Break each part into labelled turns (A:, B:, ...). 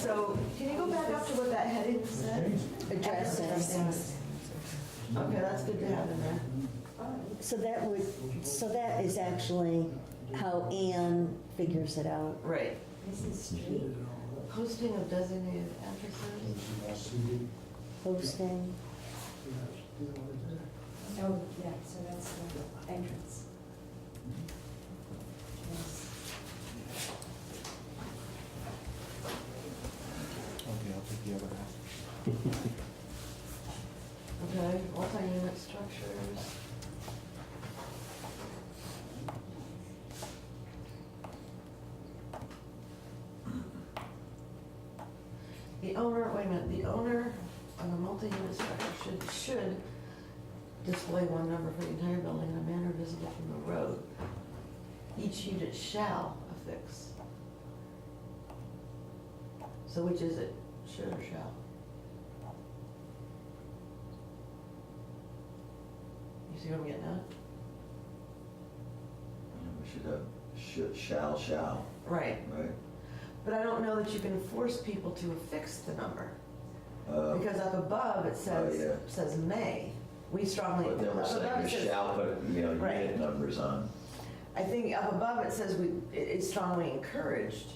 A: So can you go back up to what that heading said?
B: addresses.
A: Okay, that's good to have in there.
B: So that would, so that is actually how Anne figures it out.
A: Right.
C: This is street.
A: Posting of designated addresses.
B: Posting,
C: Oh, yeah, so that's the entrance. Yes.
D: Okay, I'll take the other half.
A: Okay, multi-unit structures. The owner, wait a minute, the owner of a multi-unit structure should, should display one number for the entire building in a manner visible from the road. Each unit shall affix. So which is it, should or shall? You see what I'm getting at?
E: We should have, should, shall, shall,
A: Right,
E: right?
A: but I don't know that you can force people to affix the number,
E: Uh,
A: because up above it says,
E: yeah.
A: says may. We strongly.
E: But then we're
A: up above
E: saying
A: it
E: we
A: says-
E: shall put, you know,
A: Right.
E: unit numbers on.
A: I think up above it says we, it- it's strongly encouraged,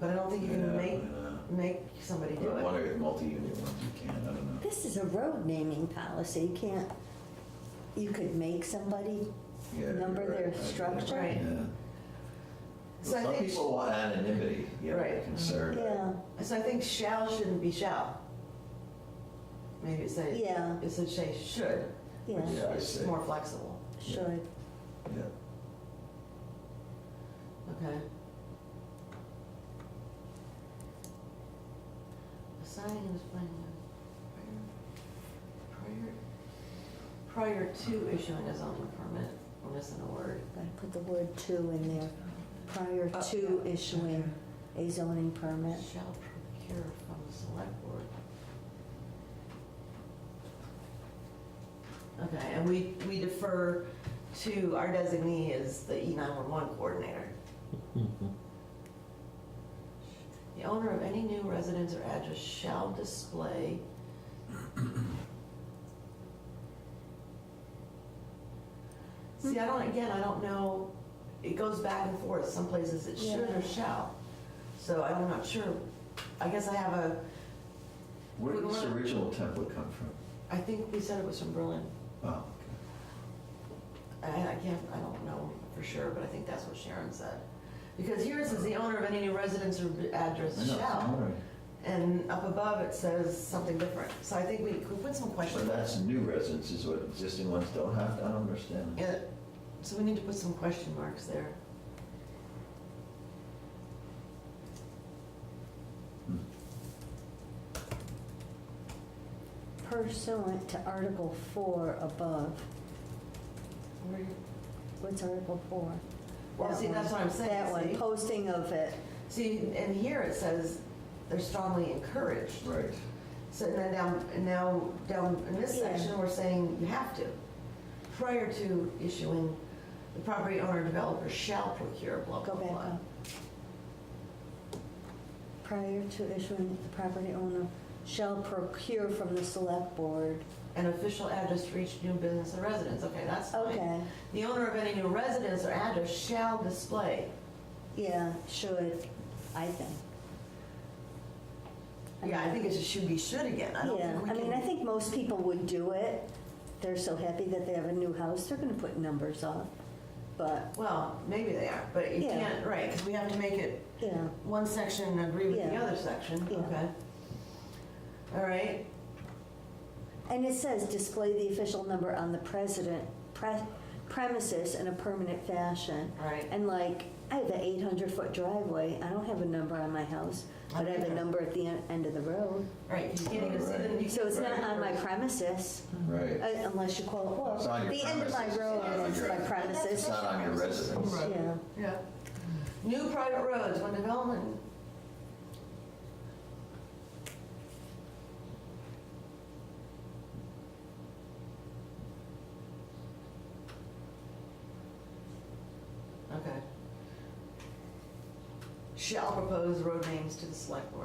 A: but I don't think you can
E: Yeah,
A: make,
E: yeah.
A: make somebody do
E: But one
A: it.
E: of the multi-unit ones you can, I don't know.
B: this is a road naming policy, you can't, you could make somebody
E: Yeah, you're
B: number
E: right.
B: their
E: I-
B: structure.
A: Right.
E: Yeah.
A: So I
E: Some
A: think-
E: people want anonymity, you know,
A: Right.
E: concern.
B: Yeah,
A: So I think shall shouldn't be shall. Maybe it says,
B: Yeah.
A: it says say should, which
B: yeah,
E: Yeah, I
A: is
E: see.
A: more flexible,
B: should.
E: Yeah.
A: okay? Assigning and displaying a prior, prior, prior to issuing a zoning permit, we're missing a word.
B: I put the word to in there, prior
A: Oh,
B: to issuing a zoning permit.
A: Shall procure from the select board. Okay, and we, we defer to, our designee is the E nine-one-one coordinator. The owner of any new residence or address shall display. See, I don't, again, I don't know, it goes back and forth, some places it should or
B: Yeah.
A: shall. So I'm not sure, I guess I have a,
E: Where did
A: We
E: this
A: want-
E: original template come from?
A: I think we said it was from Berlin.
E: Oh,
A: I, I can't, I don't know for sure, but I think that's what Sharon said. Because here it says the owner of any new residence or address
E: okay. I know,
A: shall.
E: sorry.
A: And up above it says something different. So I think we could put some
E: But
A: question marks.
E: that's new residences, what existing ones don't have, I don't understand.
A: Yeah, so we need to put some question marks there.
B: Pursuant to Article 4 above,
A: Where-
B: what's Article 4?
A: Well,
B: That
A: see,
B: one.
A: that's what I'm
B: That one,
A: saying,
B: posting of it,
A: see? See, and here it says they're strongly encouraged.
E: Right.
A: So then down, now, down in this
B: Yeah.
A: section, we're saying you have to. Prior to issuing, the property owner or developer shall procure blah,
B: Go
A: blah,
B: back
A: blah.
B: up. Prior to issuing, the property owner shall procure from the select board.
A: An official address for each new business and residence, okay, that's fine.
B: Okay,
A: The owner of any new residence or address shall display.
B: yeah, should, I think.
A: Yeah, I think it should be should again, I don't
B: Yeah,
A: think we
B: I
A: can.
B: mean, I think most people would do it. They're so happy that they have a new house, they're gonna put numbers up. But,
A: Well, maybe they are, but you
B: Yeah.
A: can't, right, because we have to make it
B: yeah,
A: one section agree with the
B: Yeah.
A: other section,
B: Yeah.
A: okay? All right,
B: and it says display the official number on the president pre- premises in a permanent fashion.
A: all right.
B: And like, I have an 800 foot driveway. I don't have a number on my house, but I have a number at the en- end of the road.
A: Right, you can't even see them. you
B: So it's not
A: can't-
B: on my premises,
E: Right.
B: uh, unless you call it,
E: It's on
B: well,
E: your
B: the end of my
E: premises.
B: road
E: It's on
B: is
E: your-
B: my
E: It's
B: premises.
E: not on your residence.
A: Right.
B: Yeah,
A: Yeah. New private roads, when development. Okay. shall propose road names to the select board.